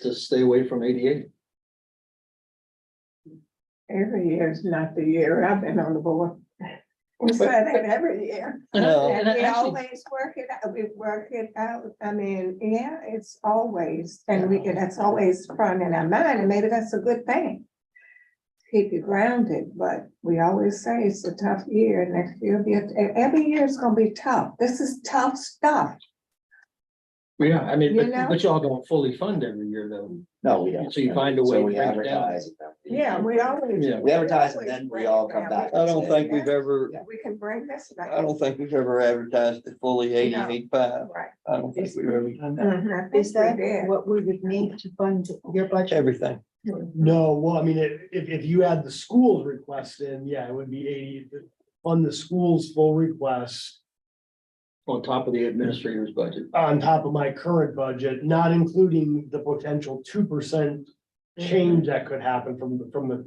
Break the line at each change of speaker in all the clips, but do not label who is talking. to stay away from eighty-eight.
Every year is not the year I've been on the board. We said it every year.
No.
And we always work it, out. we work it out. I mean, yeah, it's always, and we, and that's always front in our mind, and maybe that's a good thing. Keep you grounded, but we always say it's a tough year, next year will be, a- e- every year is gonna be tough. This is tough stuff.
Yeah, I mean,
You
but,
know?
but y'all don't fully fund every year though.
No, we don't.
So you find a way
So
to
we
bring it down.
advertise.
Yeah, we always.
Yeah.
We advertise and then we all come back.
I don't think we've ever,
We can bring this back.
I don't think we've ever advertised it fully eighty, eighty-five.
Right.
I don't think we've ever done that.
Mhm, I
Mm-hmm. Is
think
that
we did.
what we would need to fund your budget?
Everything.
No, well, I mean, if, if, if you add the school's request in, yeah, it would be eighty, on the school's full request.
On top of the administrator's budget.
On top of my current budget, not including the potential two percent change that could happen from, the from the.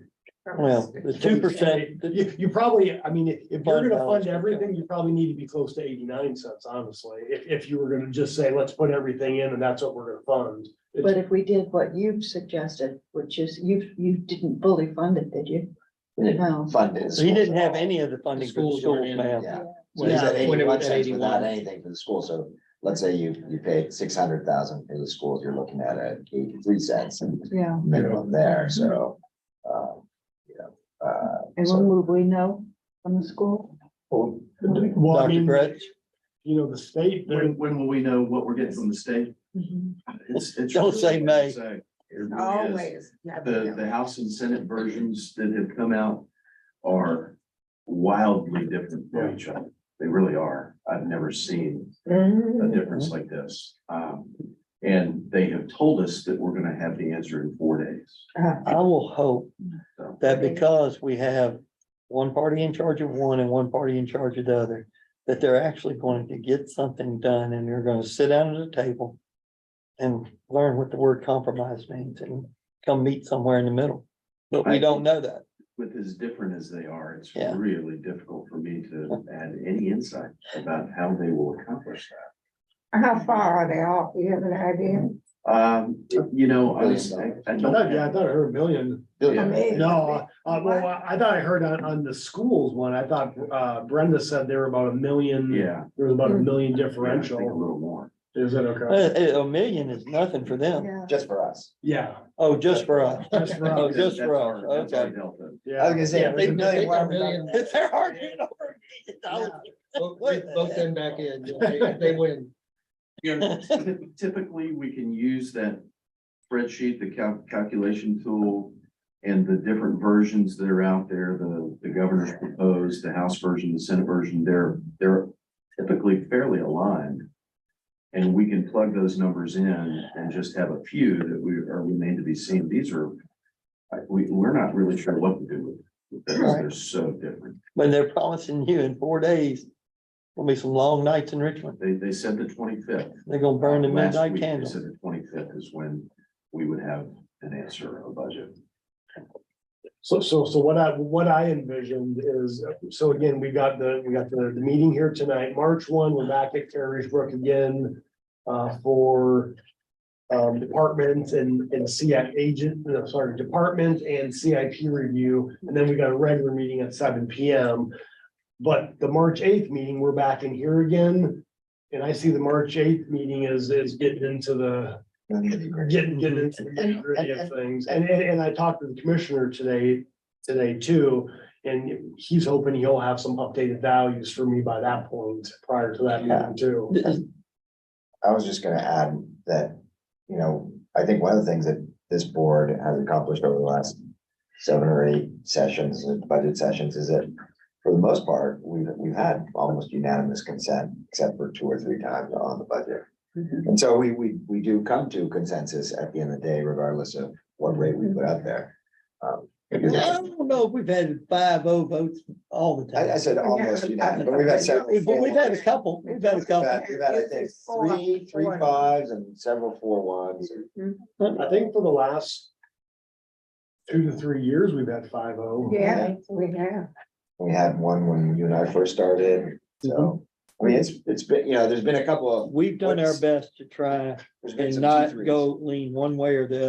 Well, the two percent,
You, you probably, I mean, if, if you're gonna
Fund balance.
fund everything, you probably need to be close to eighty-nine cents, honestly. If, if you were gonna just say, let's put everything in and that's what we're gonna fund.
But if we did what you've suggested, which is you, you didn't fully fund it, did you? No.
Funded.
so he didn't have any of the funding for the
Schools weren't
schools,
in.
ma'am.
Yeah. So
When
he's
it
at
when it
eighty-one
was at
cents without
81.
anything for the school, so let's say you, you paid six hundred thousand for the schools, you're looking at a eighty-three cents
Yeah,
minimum there, so. um, You know, uh,
and when will we know from the school?
Well, I
Dr.
mean,
Gretz,
you know, the state, they're-
When, when will we know what we're getting from the state?
Mm-hmm.
Mhm.
It's, it's.
Don't say May.
It
Oh,
really is.
Always. yeah.
The, the House and Senate versions that have come out are wildly different from each other. They really are. I've never seen
Mhm.
Mm-hmm.
a difference like this. Um, and they have told us that we're gonna have the answer in four days.
Uh,
I will hope
So
that because we have one party in charge of one and one party in charge of the other, that they're actually going to get something done and they're gonna sit down at a table and learn what the word compromise means and come meet somewhere in the middle. But we don't know that.
with as different as they are, it's
Yeah.
really difficult for me to add any insight about how they will accomplish that.
How far are they off? Do you have an idea?
Um, you know, I was, I, I
I
don't
thought, yeah, I
have-
thought I heard a million.
billion.
Amazing.
No, uh, well, I I thought I heard on, on the schools one, I thought uh, Brenda said there were about a million.
yeah.
There was about a million
I think A
differential.
little more.
Is that okay?
A, a million is nothing for them.
Yeah.
Just for us.
Yeah.
Oh, just for us.
Just for
Oh,
us.
just
That's
for
our-
us,
that's our
okay.
I
delta.
was
Yeah,
gonna say.
Yeah,
if
they-
it's a million,
they
why
got
are we talking
million.
about
If they're arguing over it, I'll-
Vote vote them back in. If they- if They win.
You know, typ- Typically, we can use that spreadsheet, the cal- calculation tool. And the different versions that are out there, the, the governor's proposed, the House version, the Senate version, they're, they're typically fairly aligned. And we can plug those numbers in and just have a few that we are remain to be seen. These are. I- We, we're not really sure what to do with. them because They're so different.
When they're promising you in four days, will be some long nights in Richmond.
They, they said the twenty-fifth.
They're gonna burn the
Uh, Last
midnight
week, they
candle.
said The twenty-fifth is when we would have an answer on budget.
so, so, so what I, what I envisioned is, so again, we got the, we got the, the meeting here tonight, March one, we're back at Carriers Brook again. Uh, for. Um, department and, and CIP agent, no, sorry, department and CIP review, and then we got a regular meeting at seven P M. But the March eighth meeting, we're back in here again. And I see the March eighth meeting is, is getting into the, getting, getting into the nitty gritty of things. Mhm. And, and, and I talked to the commissioner today, today too. And he's hoping he'll have some updated values for me by that point, prior to that meeting too.
I was just gonna add that, you know, I think one of the things that this board has accomplished over the last seven or eight sessions, uh, budget sessions, is that for the most part, we've, we've had almost unanimous consent, except for two or three times on the budget.
Mm-hmm.
And so we, we, we do come to consensus at the end of the day, regardless of what rate we put out there. Um,
I don't know if we've had five oh votes all the
I, I
time.
said almost unanimous, but we've had several.
We've, we've had a couple, we've had a
We've
couple.
had, we've had, I think, three, three fives and several four ones.
I think for the last two to three years, we've had five oh.
Yeah, we have.
We had one when you and I first started, so I mean, it's, it's been, you know, there's been a couple of
We've done our best to try
There's been
and
some
not
T3s.
go lean one way or the other.